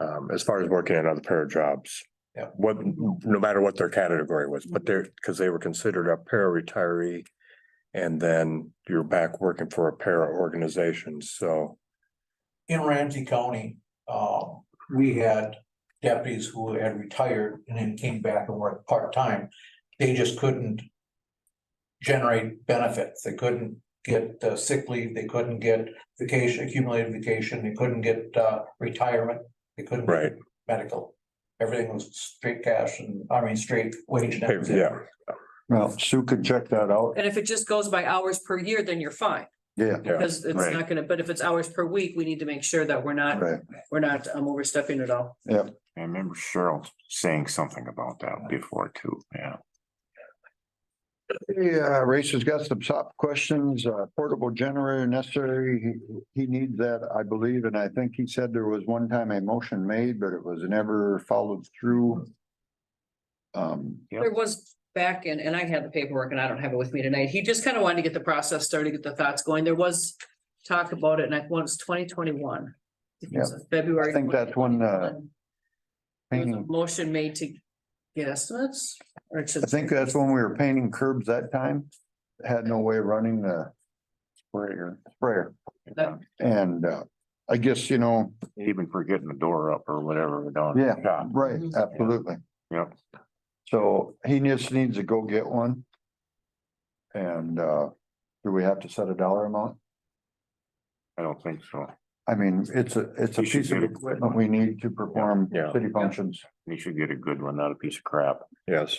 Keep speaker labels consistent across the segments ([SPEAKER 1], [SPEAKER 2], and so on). [SPEAKER 1] um, as far as working at other para jobs.
[SPEAKER 2] Yeah.
[SPEAKER 1] What, no matter what their category was, but they're,
[SPEAKER 3] Mm-hmm.
[SPEAKER 1] because they were considered a para retiree. And then you're back working for a para organization, so.
[SPEAKER 2] in Ramsey County, um, we had deputies who had retired and then came back and worked part-time. They just couldn't generate benefits. They couldn't get uh, sick leave, they couldn't get vacation, accumulated vacation, they couldn't get, uh, retirement, they couldn't. get
[SPEAKER 1] Right.
[SPEAKER 2] Medical. Everything was straight cash and, I mean, straight wage. and everything.
[SPEAKER 1] Yeah,
[SPEAKER 4] Well, Sue can check that out.
[SPEAKER 5] And if it just goes by hours per year, then you're fine,
[SPEAKER 4] Yeah,
[SPEAKER 1] yeah,
[SPEAKER 5] because it's
[SPEAKER 4] right.
[SPEAKER 5] not gonna, but if it's hours per week, we need to make sure that we're not,
[SPEAKER 4] right.
[SPEAKER 5] we're not um, overstepping at all.
[SPEAKER 3] I remember Cheryl saying something about that before too, yeah.
[SPEAKER 4] Yeah, Race has uh, got some top questions, uh, portable generator necessary. He, he needs that, I believe, and I think he said there was one time a motion made, but it was never followed through. Um,
[SPEAKER 3] Yep.
[SPEAKER 5] There was back in, and I had the paperwork and I don't have it with me tonight. He just kind of wanted to get the process started, get the thoughts going. There was talk about it and I once twenty twenty-one. February.
[SPEAKER 4] I think that's when, uh,
[SPEAKER 5] 2021. There was a
[SPEAKER 4] painting,
[SPEAKER 5] Motion made to get estimates or to.
[SPEAKER 4] I think that's when we were painting curbs that time. Had no way of running the sprayer, sprayer.
[SPEAKER 5] That-
[SPEAKER 4] And, uh, I guess, you know,
[SPEAKER 3] Even for getting the door up or whatever. down.
[SPEAKER 4] Yeah.
[SPEAKER 3] Yeah,
[SPEAKER 4] Right,
[SPEAKER 5] Mhm.
[SPEAKER 4] absolutely.
[SPEAKER 3] Yep.
[SPEAKER 4] So he just needs to go get one. And uh, do we have to set a dollar amount?
[SPEAKER 3] I don't think so.
[SPEAKER 4] I mean, it's a, it's a
[SPEAKER 3] You should
[SPEAKER 4] piece of
[SPEAKER 3] get a-
[SPEAKER 4] equipment we need to perform
[SPEAKER 1] Yeah.
[SPEAKER 4] city functions.
[SPEAKER 3] You should get a good one, not a piece of crap.
[SPEAKER 1] yes.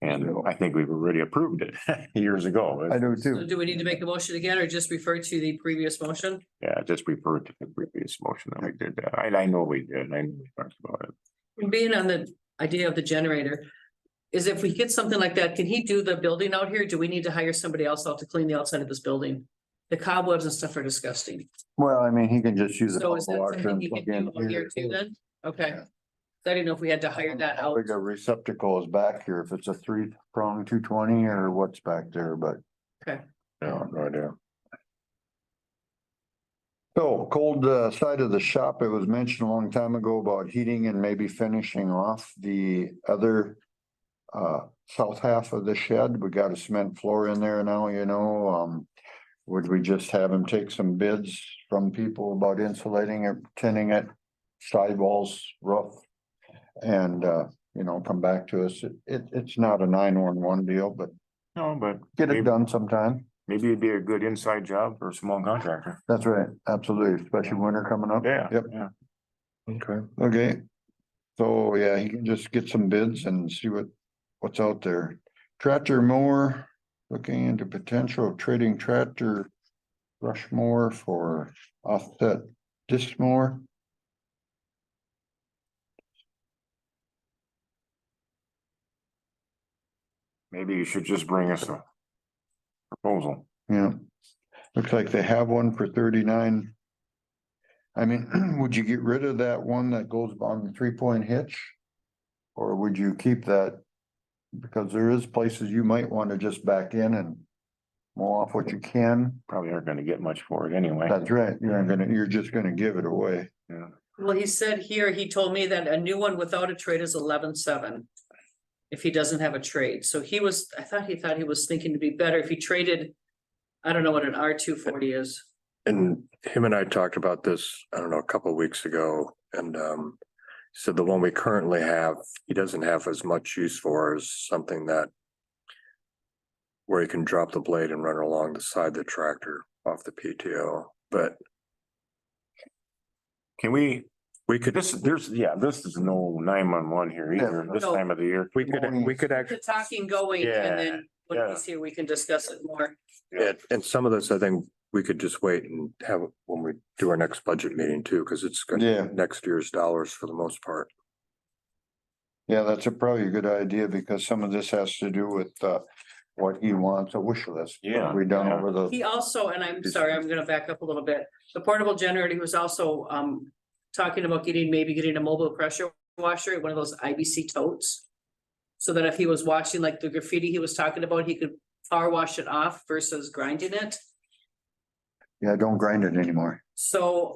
[SPEAKER 3] And I think we've already approved it years ago.
[SPEAKER 4] I do
[SPEAKER 5] So
[SPEAKER 4] too.
[SPEAKER 5] do we need to make a motion again or just refer to the previous motion?
[SPEAKER 3] Yeah, just refer to the previous motion that we did that. I, I know we did. I know we talked about it.
[SPEAKER 5] Being on the idea of the generator, is if we get something like that, can he do the building out here? Do we need to hire somebody else out to clean the outside of this building? The cobwebs and stuff are disgusting.
[SPEAKER 4] Well, I mean, he can just use. a
[SPEAKER 5] So is that
[SPEAKER 4] washer
[SPEAKER 5] something
[SPEAKER 4] and
[SPEAKER 5] he
[SPEAKER 4] plug
[SPEAKER 5] could do out
[SPEAKER 4] in
[SPEAKER 5] here
[SPEAKER 4] here.
[SPEAKER 5] too then? Okay.
[SPEAKER 4] Yeah. Um,
[SPEAKER 5] So I didn't know if we had to hire that
[SPEAKER 4] How
[SPEAKER 5] out.
[SPEAKER 4] Big a receptacle is back here, if it's a three prong two twenty or what's back there, but.
[SPEAKER 1] No, no idea.
[SPEAKER 4] So cold uh, side of the shop, it was mentioned a long time ago about heating and maybe finishing off the other uh, south half of the shed. We got a cement floor in there now, you know, um, would we just have him take some bids from people about insulating it, tinning it, sidewalls, roof? And, uh, you know, come back to us. It- It, it's not a nine-one-one deal, but
[SPEAKER 3] No, but
[SPEAKER 4] get it
[SPEAKER 3] Maybe-
[SPEAKER 4] done sometime.
[SPEAKER 3] maybe it'd be a good inside job for a small contractor.
[SPEAKER 4] That's right, absolutely, especially winter coming up.
[SPEAKER 3] Yeah.
[SPEAKER 4] Yep.
[SPEAKER 3] yeah.
[SPEAKER 1] Okay.
[SPEAKER 4] Okay. So, yeah, he can just get some bids and see what, what's out there. Tractor mower, looking into potential of trading tractor brush mower for offset disc mower.
[SPEAKER 3] Maybe you should just bring us a proposal.
[SPEAKER 4] Yeah. Looks like they have one for thirty-nine. I mean, would you get rid of that one that goes on the three-point hitch? Or would you keep that? Because there is places you might want to just back in and mow off what you can.
[SPEAKER 3] Probably aren't gonna get much for it anyway.
[SPEAKER 4] That's right, you're gonna, you're just gonna give it away.
[SPEAKER 5] Well, he said here, he told me that a new one without a trade is eleven seven. If he doesn't have a trade, so he was, I thought he thought he was thinking to be better if he traded. I don't know what an R two forty is.
[SPEAKER 1] And him and I talked about this, I don't know, a couple of weeks ago, and um. So the one we currently have, he doesn't have as much use for as something that. Where he can drop the blade and run along the side of the tractor off the PTO, but
[SPEAKER 3] Can we,
[SPEAKER 1] we could,
[SPEAKER 3] this, there's, yeah, this is no nine one one here either, this
[SPEAKER 5] No.
[SPEAKER 3] time of the year.
[SPEAKER 1] we could, we could actually.
[SPEAKER 5] The talking going and then when
[SPEAKER 3] yeah.
[SPEAKER 5] he's here, we can discuss it more.
[SPEAKER 1] And, and some of this, I think we could just wait and have, it when we do our next budget meeting too, because it's
[SPEAKER 4] Yeah.
[SPEAKER 1] gonna, next year's dollars for the most part.
[SPEAKER 4] Yeah, that's a probably a good idea because some of this has to do with uh what he wants, a wish list. what
[SPEAKER 3] Yeah,
[SPEAKER 4] We done
[SPEAKER 3] yeah.
[SPEAKER 4] over the,
[SPEAKER 5] He also, and I'm sorry, I'm gonna back up a little bit. The portable generator, he was also um talking about getting, maybe getting a mobile pressure washer, one of those IBC totes. So that if he was washing like the graffiti he was talking about, he could power wash it off versus grinding it.
[SPEAKER 4] yeah, don't grind it anymore.
[SPEAKER 5] So